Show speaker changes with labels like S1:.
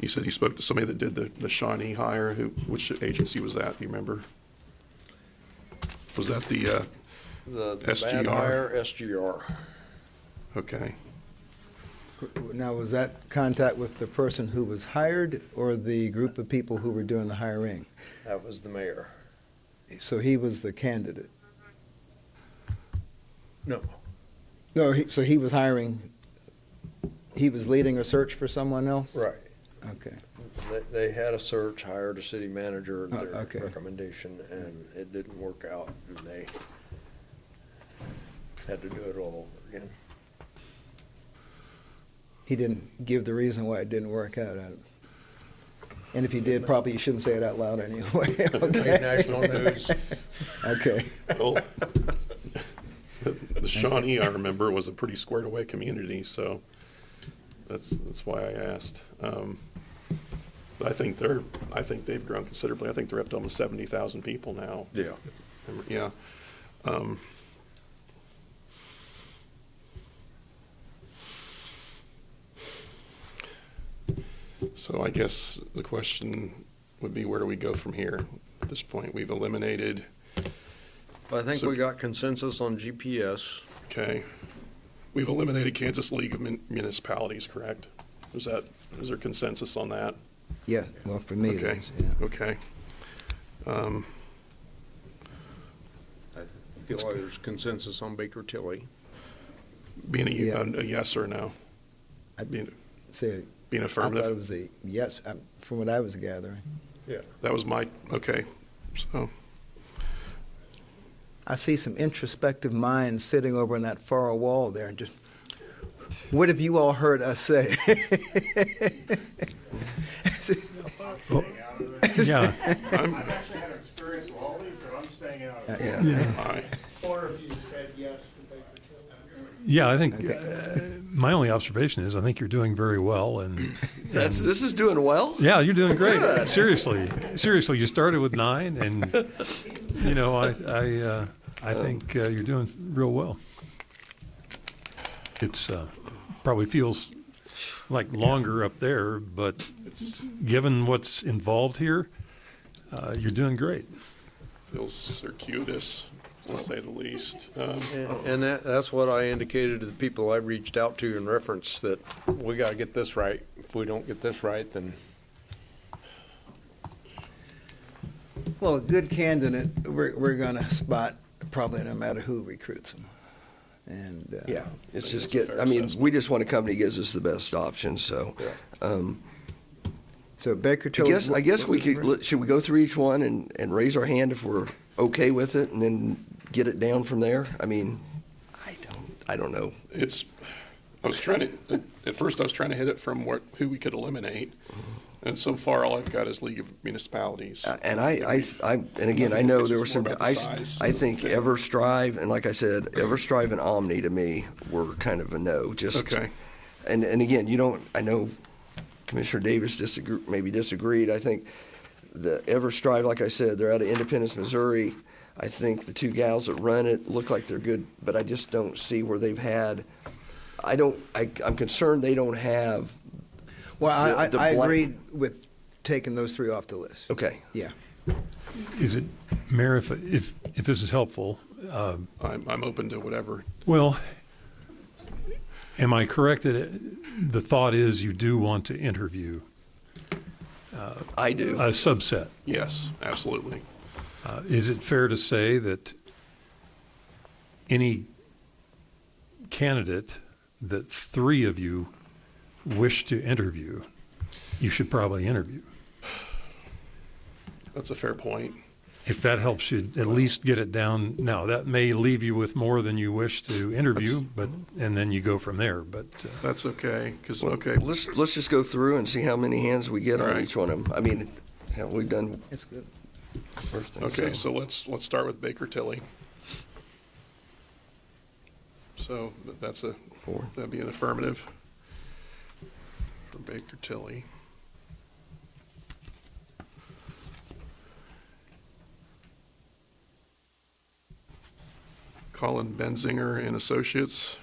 S1: He said he spoke to somebody that did the, the Shawnee hire, who, which agency was that, do you remember? Was that the, uh,
S2: The the
S1: SGR.
S2: bad hire, SGR.
S1: okay,
S3: Now, was that contact with the person who was hired or the group of people who were doing the hiring?
S2: That was the mayor.
S3: So he was the candidate?
S2: No.
S3: No, he- so he was hiring, he was leading a search for someone else?
S2: Right.
S3: Okay.
S2: They, they had a search, hired a city manager at
S3: Oh,
S2: their
S3: okay.
S2: recommendation, and it didn't work out, and they had to do it all over again.
S3: He didn't give the reason why it didn't work out. I- And if he did, probably you shouldn't say it out loud anyway. Okay.
S2: Made national news.
S3: Okay.
S1: well, the Shawnee, I remember, was a pretty squared away community, so that's, that's why I asked. Um, But I think they're, I think they've grown considerably, I think they're up to almost seventy thousand people now.
S2: Yeah.
S1: Yeah. Um, So I guess the question would be, where do we go from here? At this point, we've eliminated,
S2: I think
S1: So-
S2: we got consensus on GPS.
S1: okay, we've eliminated Kansas League of Mun- Municipalities, correct? Is that, is there consensus on that?
S3: Yeah, well, for me, it
S1: Okay.
S3: is, yeah.
S1: Okay. Um,
S2: I feel like there's consensus on Baker Tilly.
S1: Being a-
S3: Yeah.
S1: a, a yes or no?
S3: I-
S1: Being,
S3: So
S1: being
S3: I thought
S1: affirmative?
S3: it was a, yes, I- from what I was gathering.
S1: That was my, okay, so,
S3: I see some introspective minds sitting over in that far wall there and just, what have you all heard us say?
S4: Yeah,
S1: I'm,
S5: I've actually had an experience with all these, but I'm staying out of it.
S3: Yeah.
S1: aye.
S5: Four of you said yes to Baker Tilly.
S4: yeah. I think uh, my only observation is I think you're doing very well, and
S2: That's, this is doing well?
S4: yeah, you're doing great. Seriously, seriously, you started with nine, and you know I I uh, I think uh, you're doing real well. It's uh, probably feels like longer up there, but
S1: It's,
S4: given what's involved here, uh, you're doing great.
S1: feels circuitous, to say the least. Um,
S2: And that, that's what I indicated to the people I reached out to in reference, that we gotta get this right. If we don't get this right, then
S3: Well, a good candidate, we're, we're going to spot probably no matter who recruits them. And, uh,
S6: Yeah, it's
S1: think
S6: just
S1: that's a
S6: get,
S1: fair
S6: I mean,
S1: assessment.
S6: we just want a company that gives us the best option, so.
S2: Yeah.
S6: um,
S3: so Baker
S6: I
S3: Tilly.
S6: guess, I guess we could, let- should we go through each one and, and raise our hand if we're okay with it and then get it down from there? I mean, I don't, I don't know.
S1: It's, I was trying to, at first I was trying to hit it from what, who we could eliminate. And so far, all I've got is League of Municipalities.
S6: Uh, And I, I, I, and again, I
S1: think
S6: know
S1: it's
S6: there were
S1: just
S6: some,
S1: more about the
S6: I, s-
S1: size
S6: I
S1: of the
S6: think
S1: thing.
S6: EverStrive, and like I said, EverStrive and Omni to me were kind of a no, just.
S1: Okay.
S6: And, and again, you don't, I know Commissioner Davis disagree, maybe disagreed. I think the EverStrive, like I said, they're out of Independence, Missouri. I think the two gals that run it look like they're good, but I just don't see where they've had, I don't, I, I'm concerned they don't have,
S3: Well, I, I,
S6: the- the
S3: I
S6: blank-
S3: agreed with taking those three off the list.
S6: okay.
S3: Yeah.
S4: Is it, Mayor? If if, if this is helpful,
S1: I'm, I'm open to whatever.
S4: Well, am I correct that it- the thought is you do want to interview
S6: I do.
S4: a subset?
S1: Yes, absolutely.
S4: Uh, Is it fair to say that any candidate that three of you wish to interview, you should probably interview?
S1: That's a fair point.
S4: If that helps you at least get it down. Now, that may leave you with more than you wish to interview, but, and then you go from there, but. uh,
S1: That's okay, because, okay,
S6: Let's, let's just go through and see how many hands we get
S1: All
S6: on
S1: right.
S6: each one of them. I mean, hell, we've done
S3: That's good.
S6: first thing.
S1: okay, so let's, let's start with Baker Tilly. So th- that's a,
S6: Four.
S1: That'd be an affirmative for Baker Tilly. Colin Benzinger and Associates,